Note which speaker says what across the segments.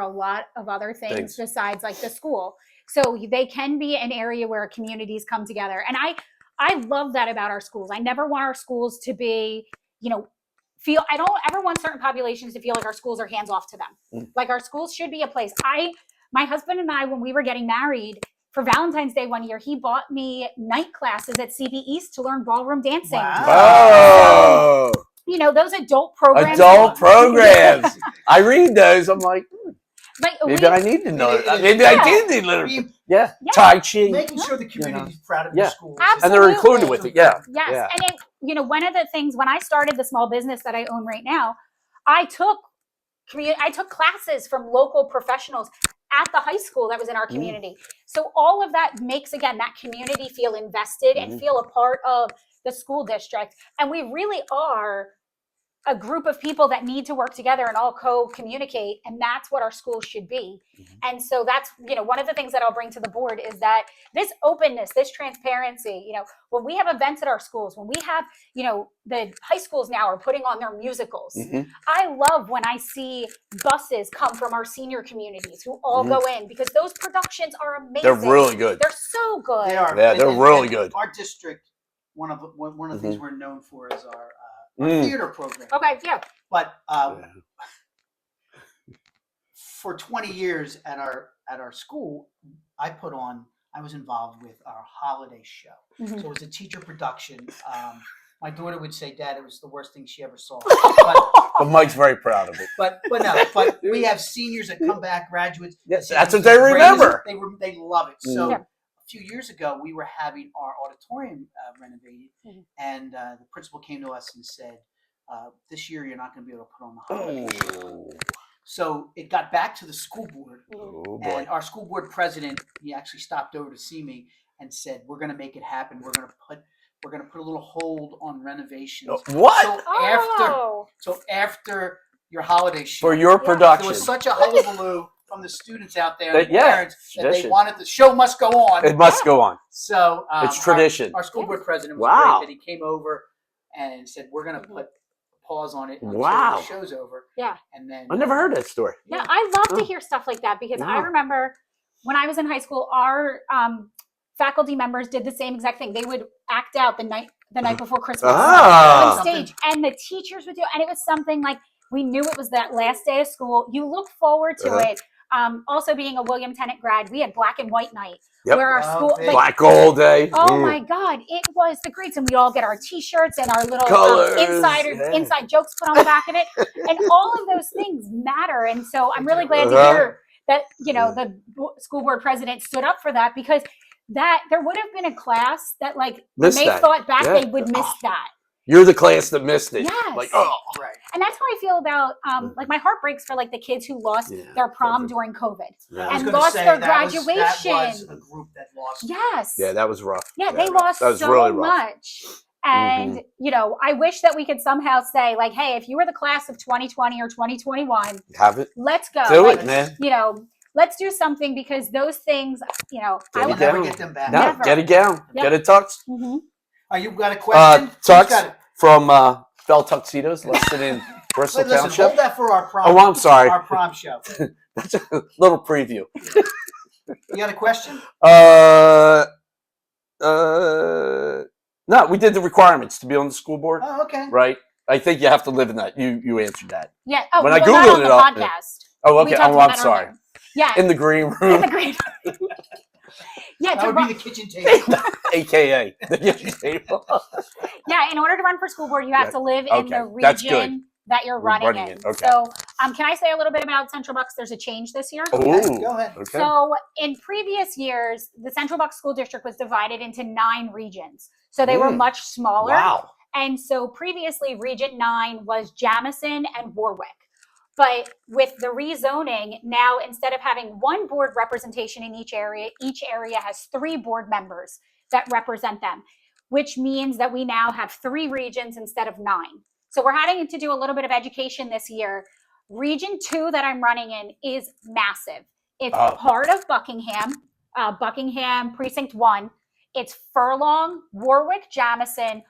Speaker 1: a lot of other things
Speaker 2: Thanks.
Speaker 1: besides like the school. So y- they can be an area where communities come together. And I I love that about our schools. I never want our schools to be, you know, feel I don't ever want certain populations to feel like our schools are hands off to
Speaker 2: Mm.
Speaker 1: them. Like our schools should be a place. I my husband and I when we were getting married for Valentine's Day one year, he bought me night classes at CB East to learn ballroom dancing.
Speaker 2: Oh,
Speaker 1: You know, those adult programs.
Speaker 2: adult programs. I read those. I'm like, hmm,
Speaker 1: But we,
Speaker 2: maybe I need to know.
Speaker 3: Yeah.
Speaker 2: Maybe I do need literature.
Speaker 3: Be-
Speaker 2: Yeah,
Speaker 1: Yeah.
Speaker 2: Tai Chi,
Speaker 3: Making sure the community's proud of
Speaker 2: Yeah.
Speaker 3: your schools.
Speaker 2: and they're
Speaker 1: Absolutely.
Speaker 2: included with it. Yeah,
Speaker 1: Yes.
Speaker 2: Yeah.
Speaker 1: And it, you know, one of the things when I started the small business that I own right now, I took community I took classes from local professionals at the high school that was in our
Speaker 2: Mm.
Speaker 1: community. So all of that makes again that community feel invested
Speaker 2: Mhm.
Speaker 1: and feel a part of the school district. And we really are a group of people that need to work together and all co-communicate and that's what our schools should be.
Speaker 2: Mhm.
Speaker 1: And so that's you know one of the things that I'll bring to the board is that this openness, this transparency, you know, when we have events at our schools, when we have, you know, the high schools now are putting on their musicals.
Speaker 2: Mhm.
Speaker 1: I love when I see buses come from our senior communities who all
Speaker 2: Mhm.
Speaker 1: go in because those productions are amazing.
Speaker 2: they're really good.
Speaker 1: They're so good.
Speaker 3: They are.
Speaker 2: Yeah, they're really good. Mm-hmm.
Speaker 3: Our district, one of one, one of the things we're known for is our uh,
Speaker 2: Mm.
Speaker 3: theater program.
Speaker 1: Okay, yeah.
Speaker 3: But um,
Speaker 2: Yeah.
Speaker 3: for 20 years at our at our school, I put on. I was involved with our holiday show.
Speaker 1: Mhm.
Speaker 3: So it was a teacher production. Um, my daughter would say, "Dad, it was the worst thing she ever saw." But,
Speaker 2: But Mike's very proud of it.
Speaker 3: but but no. But we have seniors that come back, graduates.
Speaker 2: Yes,
Speaker 3: say
Speaker 2: that's what
Speaker 3: it was
Speaker 2: they
Speaker 3: the greatest-
Speaker 2: remember.
Speaker 3: They rem- they love it. So
Speaker 1: Yeah.
Speaker 3: a few years ago, we were having our auditorium uh, renovated,
Speaker 1: Mhm.
Speaker 3: and uh, the principal came to us and said, uh, "This year, you're not going to be able to put on the holiday." show."
Speaker 2: Oh,
Speaker 3: So it got back to the school board,
Speaker 1: Mhm.
Speaker 2: oh boy.
Speaker 3: and our school board president he actually stopped over to see me and said, "We're going to make it happen. We're going to put we're going to put a little hold on renovations."
Speaker 2: Oh, What
Speaker 3: So after
Speaker 1: Oh,
Speaker 3: so after your holiday show,
Speaker 2: for your
Speaker 1: Yeah.
Speaker 3: there
Speaker 2: production?
Speaker 3: was such a hullabaloo from the students out there,
Speaker 2: That-
Speaker 3: and the
Speaker 2: yeah,
Speaker 3: parents, that they
Speaker 2: tradition.
Speaker 3: wanted the show must go on.
Speaker 2: It must go on.
Speaker 3: so um,
Speaker 2: It's
Speaker 3: our-
Speaker 2: tradition.
Speaker 3: our school board president was
Speaker 2: Wow.
Speaker 3: great that he came over and said, "We're going to
Speaker 1: Mhm.
Speaker 3: put a pause on it until
Speaker 2: Wow.
Speaker 3: the show's over."
Speaker 1: Yeah.
Speaker 3: and then
Speaker 2: I never heard that story.
Speaker 1: yeah. I love
Speaker 2: Oh.
Speaker 1: to hear stuff like that because I
Speaker 2: Yeah.
Speaker 1: remember when I was in high school, our um, faculty members did the same exact thing. They would act out the night the night before Christmas. on
Speaker 2: Ah,
Speaker 3: Something-
Speaker 1: stage and the teachers would do and it was something like we knew it was that last day of school you look forward to
Speaker 2: Uh-huh.
Speaker 1: it um, also being a william tennant grad we had black and white night
Speaker 2: Yep.
Speaker 1: where our
Speaker 3: Oh,
Speaker 1: school
Speaker 3: big.
Speaker 1: like,
Speaker 2: Black Gold Day.
Speaker 1: oh
Speaker 2: Mm.
Speaker 1: my god it was the greats and we'd all get our t-shirts and our little um,
Speaker 2: Colors,
Speaker 1: insider
Speaker 2: yeah.
Speaker 1: inside jokes put on the back of it and all of those things matter and so i'm
Speaker 3: They
Speaker 1: really
Speaker 3: do.
Speaker 1: glad
Speaker 2: Uh-huh.
Speaker 1: to
Speaker 2: Mm.
Speaker 1: hear that you know the bo- school board president stood up for that because that there would have been a class that like when
Speaker 2: Missed
Speaker 1: they
Speaker 2: that.
Speaker 1: thought back
Speaker 2: Yeah. Ah.
Speaker 1: they would miss that
Speaker 2: You're the class that missed it.
Speaker 1: Yes.
Speaker 2: Like, oh.
Speaker 3: right.
Speaker 1: and that's how I feel about um, like my heart breaks for like the kids who lost
Speaker 2: Mm. Yeah,
Speaker 1: their prom
Speaker 2: COVID.
Speaker 1: during COVID.
Speaker 3: I was
Speaker 1: And
Speaker 3: gonna
Speaker 1: lost
Speaker 3: say
Speaker 1: their
Speaker 3: that was- that was
Speaker 1: graduation.
Speaker 3: a group that lost.
Speaker 1: Yes.
Speaker 2: Yeah, that was rough.
Speaker 1: Yeah, they lost
Speaker 2: That was
Speaker 1: so
Speaker 2: really rough. Mm-hmm.
Speaker 1: much. And you know, I wish that we could somehow say like, hey, if you were the class of 2020 or 2021,
Speaker 2: Have it.
Speaker 1: let's go.
Speaker 2: Do
Speaker 1: Like,
Speaker 2: it, man.
Speaker 1: You know, let's do something because those things, you know, I
Speaker 2: Get it
Speaker 3: We'll
Speaker 1: would.
Speaker 2: down.
Speaker 3: never get them back.
Speaker 2: No,
Speaker 1: Never.
Speaker 2: get it gown.
Speaker 1: Yep.
Speaker 2: Get it tucked
Speaker 1: Mhm.
Speaker 3: Are you got a question?
Speaker 2: Uh,
Speaker 3: Who's
Speaker 2: Tux
Speaker 3: got it?
Speaker 2: from uh, Bell Tuxedos, listed in Bristol
Speaker 3: Wait, listen,
Speaker 2: Township.
Speaker 3: hold that for our prom.
Speaker 2: Oh, I'm sorry.
Speaker 3: Our prom show.
Speaker 2: That's a little preview.
Speaker 3: You got a question?
Speaker 2: Uh, uh, no, we did the requirements to be on the school board,
Speaker 3: Oh, okay.
Speaker 2: right? I think you have to live in that. You you answered that.
Speaker 1: Yeah. Oh,
Speaker 2: When I
Speaker 1: well, not
Speaker 2: Googled
Speaker 1: on
Speaker 2: it
Speaker 1: the
Speaker 2: up, yeah.
Speaker 1: podcast.
Speaker 2: Oh,
Speaker 1: We
Speaker 2: okay.
Speaker 1: talked
Speaker 2: Oh,
Speaker 1: about
Speaker 2: I'm
Speaker 1: that on
Speaker 2: sorry.
Speaker 1: the- Yeah.
Speaker 2: In the green
Speaker 1: in
Speaker 2: room,
Speaker 1: the green. yeah.
Speaker 3: That
Speaker 1: To
Speaker 3: would be
Speaker 1: run,
Speaker 3: the kitchen table.
Speaker 2: aka the kitchen table.
Speaker 1: yeah. In order to run for school board, you have
Speaker 2: Yeah.
Speaker 1: to live in the
Speaker 2: Okay, that's good.
Speaker 1: region that you're
Speaker 2: We're
Speaker 1: running,
Speaker 2: running
Speaker 1: in.
Speaker 2: it, okay.
Speaker 1: So, um, can I say a little bit about Central Bucks? There's a change this year.
Speaker 3: Okay, Go
Speaker 2: Oh,
Speaker 3: ahead.
Speaker 2: okay.
Speaker 1: So, in previous years, the Central Bucks School District was divided into nine regions. So, they were
Speaker 2: Mm.
Speaker 1: much smaller.
Speaker 2: Wow.
Speaker 1: And so, previously, Region 9 was Jamison and Warwick. But with the rezoning, now instead of having one board representation in each area, each area has three board members that represent them, which means that we now have three regions instead of nine. So, we're having to do a little bit of education this year. Region 2 that I'm running in is massive. It's
Speaker 2: Oh.
Speaker 1: part of Buckingham, uh, Buckingham Precinct 1. It's Furlong, Warwick, Jamison,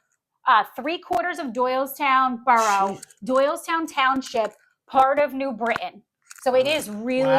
Speaker 1: uh, three quarters of Doylestown Borough, Doylestown Township, part of New Britain. So it is really
Speaker 3: Wow.